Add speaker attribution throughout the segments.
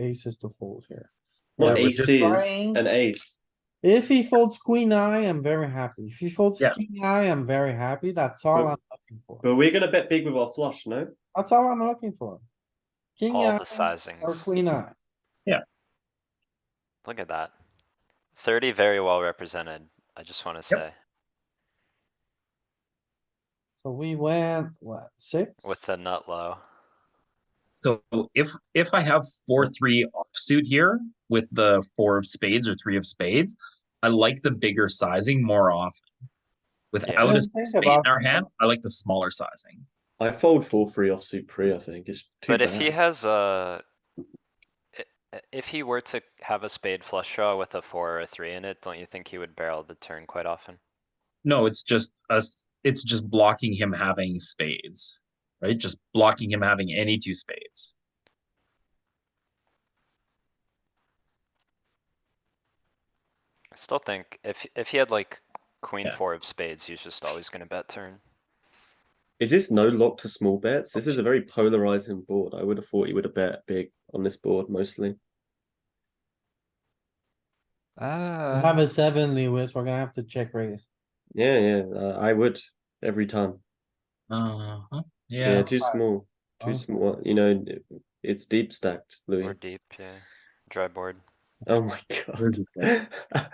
Speaker 1: aces to fold here.
Speaker 2: Well,
Speaker 3: Yeah, we're just
Speaker 2: aces
Speaker 1: trying-
Speaker 2: and eights.
Speaker 1: If he folds queen eye, I'm very happy. If he folds
Speaker 3: Yeah.
Speaker 1: king eye, I'm very happy. That's all
Speaker 2: But-
Speaker 1: I'm looking for.
Speaker 2: But we're gonna bet big with our flush, no?
Speaker 1: That's all I'm looking for. King
Speaker 4: all the
Speaker 1: eye or
Speaker 4: sizings.
Speaker 1: queen eye.
Speaker 4: Look at that. Thirty very well represented, I just wanna say,
Speaker 1: So we went, what, six?
Speaker 4: with the nut low.
Speaker 3: So if, if I have four, three offsuit here with the four of spades or three of spades, I like the bigger sizing more often. Without
Speaker 1: Yeah,
Speaker 3: a
Speaker 1: think
Speaker 3: spade in
Speaker 1: about
Speaker 3: our
Speaker 1: it.
Speaker 3: hand, I like the smaller sizing.
Speaker 2: I fold four three offsuit pre. I think it's too
Speaker 4: But if he
Speaker 2: bad.
Speaker 4: has a. i- i- If he were to have a spade flush draw with a four or a three in it, don't you think he would barrel the turn quite often?
Speaker 3: No, it's just us, it's just blocking him having spades, right? Just blocking him having any two spades.
Speaker 4: I still think if, if he had like queen
Speaker 3: Yeah.
Speaker 4: four of spades, he's just always gonna bet turn.
Speaker 2: Is this no lock to small bets? This is a very polarizing board. I would have thought he would have bet big on this board mostly.
Speaker 1: We
Speaker 4: Ah.
Speaker 1: Have a seven, Lewis. We're gonna have to check raise.
Speaker 2: Yeah, yeah, uh, I would every time.
Speaker 3: Uh-huh,
Speaker 2: Yeah,
Speaker 3: yeah,
Speaker 2: too
Speaker 1: Right.
Speaker 2: small, too
Speaker 1: Oh.
Speaker 2: small. You know, it's deep stacked, Louis.
Speaker 4: Or deep, yeah, dry board.
Speaker 2: Oh my god.
Speaker 3: well,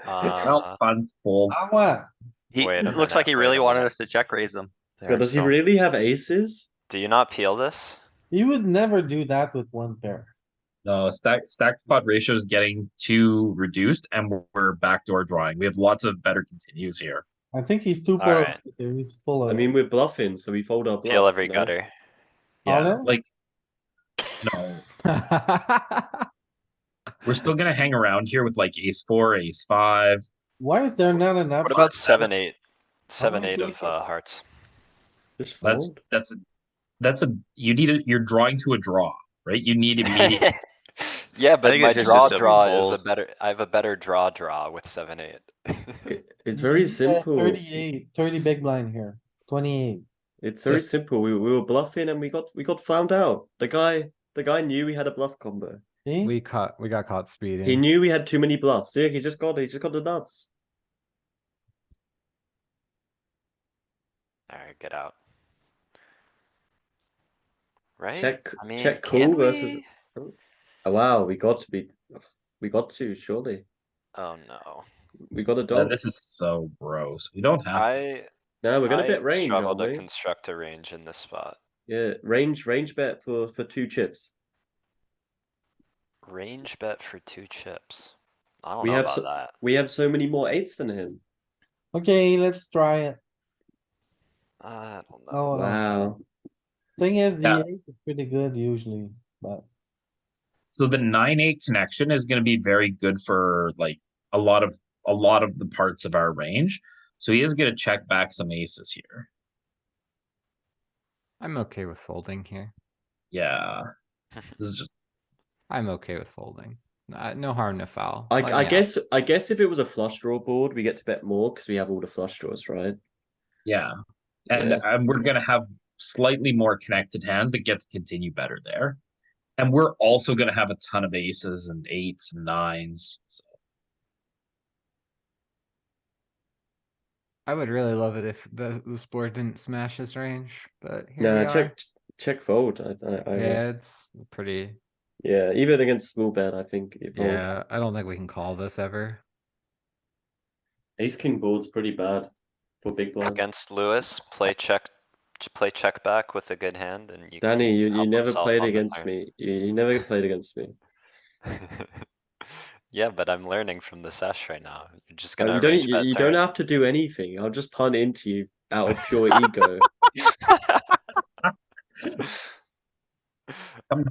Speaker 4: Uh,
Speaker 3: fun, fold.
Speaker 1: Ah, what?
Speaker 5: He,
Speaker 4: Wait a
Speaker 5: it looks
Speaker 4: minute,
Speaker 5: like he
Speaker 4: wait a
Speaker 5: really wanted
Speaker 4: minute.
Speaker 5: us to check raise him.
Speaker 2: God,
Speaker 4: There's
Speaker 2: does he
Speaker 4: some-
Speaker 2: really have aces?
Speaker 4: Do you not peel this?
Speaker 1: You would never do that with one pair.
Speaker 3: No, stack stack to pot ratio is getting too reduced, and we're- we're backdoor drawing. We have lots of better continues here.
Speaker 1: I think he's too poor.
Speaker 4: Alright.
Speaker 1: He's full of.
Speaker 3: Oh.
Speaker 2: I mean, we're bluffing, so we fold our bluff.
Speaker 4: Peel every
Speaker 2: no?
Speaker 4: gutter.
Speaker 3: Yeah,
Speaker 1: Pardon?
Speaker 3: like no, we're still gonna hang around here with like ace four, ace five.
Speaker 1: Why is there not enough?
Speaker 4: What about seven, eight? Seven,
Speaker 2: Oh,
Speaker 1: many
Speaker 4: eight
Speaker 1: do you
Speaker 4: of
Speaker 1: think?
Speaker 4: uh, hearts.
Speaker 2: Just fold.
Speaker 3: That's that's a that's a you need a, you're drawing to a draw, right? You need immediate.
Speaker 4: Yeah, but
Speaker 5: think
Speaker 4: my
Speaker 5: it's just
Speaker 4: draw
Speaker 5: a simple
Speaker 4: draw is a
Speaker 5: fold.
Speaker 4: better, I have a better draw draw with seven, eight.
Speaker 2: It- It's very simple.
Speaker 1: Thirty-eight, thirty big blind here, twenty-eight.
Speaker 2: It's very
Speaker 3: Yes.
Speaker 2: simple. We we were bluffing and we got we got found out. The guy the guy knew we had a bluff combo.
Speaker 1: See?
Speaker 6: We caught, we got caught speeding.
Speaker 2: He knew we had too many bluffs. Yeah, he just got he just got the nuts.
Speaker 4: Alright, get out. Right?
Speaker 2: Check-
Speaker 4: I mean,
Speaker 2: check
Speaker 4: can
Speaker 2: call versus-
Speaker 4: we?
Speaker 2: Oh, wow, we got to be we got to surely.
Speaker 4: Oh no,
Speaker 2: We got a
Speaker 3: Uh,
Speaker 2: dog.
Speaker 3: this is so gross. You don't have to.
Speaker 4: I,
Speaker 2: No, we're gonna
Speaker 4: I
Speaker 2: bet range,
Speaker 4: struggle
Speaker 2: aren't
Speaker 4: to
Speaker 2: we?
Speaker 4: construct a range in this spot.
Speaker 2: Yeah, range range bet for for two chips.
Speaker 4: Range bet for two chips. I don't
Speaker 2: We
Speaker 4: know
Speaker 2: have so-
Speaker 4: about that.
Speaker 2: We have so many more eights than him.
Speaker 1: Okay, let's try it. Oh,
Speaker 4: I don't know.
Speaker 1: No, no.
Speaker 2: Wow.
Speaker 1: Thing is,
Speaker 3: Yeah.
Speaker 1: the eight is pretty good usually, but
Speaker 3: So the nine eight connection is going to be very good for like a lot of a lot of the parts of our range. So he is going to check back some aces here.
Speaker 6: I'm okay with folding here.
Speaker 3: Yeah, this is just
Speaker 6: I'm okay with folding. Uh, no harm, no foul.
Speaker 2: I
Speaker 6: Let
Speaker 2: I
Speaker 6: me out.
Speaker 2: guess I guess if it was a flush draw board, we get to bet more because we have all the flush draws, right?
Speaker 3: yeah, and
Speaker 2: Yeah.
Speaker 3: and we're going to have slightly more connected hands that get to continue better there, and we're also going to have a ton of aces and eights and nines. So
Speaker 6: I would really love it if the, the sport didn't smash his range, but here
Speaker 2: No,
Speaker 6: we
Speaker 2: check check fold. I, I, I
Speaker 6: are.
Speaker 2: would.
Speaker 6: Yeah, it's pretty.
Speaker 2: Yeah, even against small bet, I think. It fold.
Speaker 6: Yeah, I don't think we can call this ever.
Speaker 2: Ace king board's pretty bad for big blind.
Speaker 4: Against Lewis, play check, j- play check back with a good hand and you.
Speaker 2: Danny, you, you
Speaker 4: help
Speaker 2: never
Speaker 4: himself
Speaker 2: played
Speaker 4: on the
Speaker 2: against
Speaker 4: turn.
Speaker 2: me. You, you never played against me.
Speaker 4: Yeah, but I'm learning from the sesh right now. You're just
Speaker 2: Uh,
Speaker 4: gonna
Speaker 2: you don't
Speaker 4: arrange
Speaker 2: you,
Speaker 4: bet
Speaker 2: you don't
Speaker 4: turn.
Speaker 2: have to do anything. I'll just punt into you out of pure ego.
Speaker 3: come-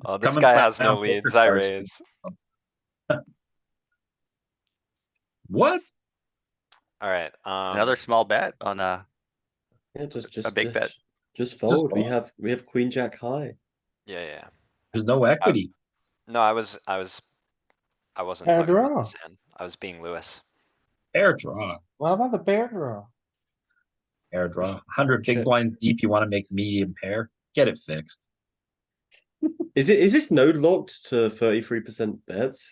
Speaker 4: Oh, this
Speaker 3: come and
Speaker 4: guy
Speaker 3: find
Speaker 4: has no
Speaker 3: out poker
Speaker 4: leads, I
Speaker 3: cards.
Speaker 4: raise.
Speaker 3: What?
Speaker 4: Alright, um.
Speaker 5: Another small bet on uh
Speaker 2: Yeah, just just
Speaker 5: big
Speaker 2: just,
Speaker 5: bet.
Speaker 2: Just fold. we
Speaker 3: fold.
Speaker 2: have we have queen jack high.
Speaker 4: Yeah, yeah.
Speaker 3: There's no equity.
Speaker 4: No, I was, I was, I wasn't
Speaker 1: Fair
Speaker 4: talking about
Speaker 1: draw.
Speaker 4: this hand. I was being Lewis.
Speaker 3: Air draw.
Speaker 1: what about the pair draw?
Speaker 3: Air draw. 100 big
Speaker 2: Shit.
Speaker 3: blinds deep. You want to make medium pair? Get it fixed.
Speaker 2: Is it is this node locked to thirty three percent bets?